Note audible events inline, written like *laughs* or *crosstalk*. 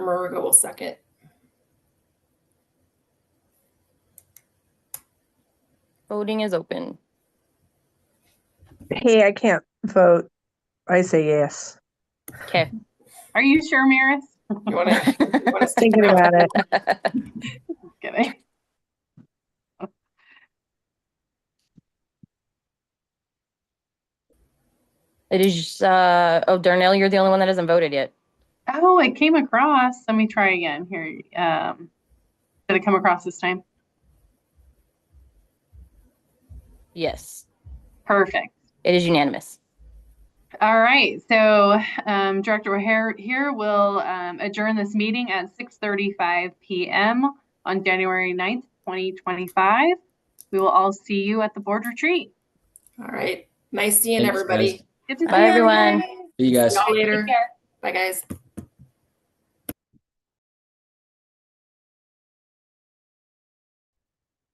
Maruga will second. Voting is open. Hey, I can't vote. I say yes. Okay. Are you sure, Maris? You want to? *laughs* Thinking about it. Kidding. It is, uh, oh, Darnell, you're the only one that hasn't voted yet. Oh, it came across. Let me try again here. Um, did it come across this time? Yes, Perfect. it is unanimous. All right, so um, Director O'Hare here will um, adjourn this meeting at 6:35 PM on January 9th, 2025. We will all see you at the board retreat. All right. Nice seeing Thanks, everybody. guys. Good to see Bye, everyone. everybody. See you guys. Y'all Take later. care. Bye, guys.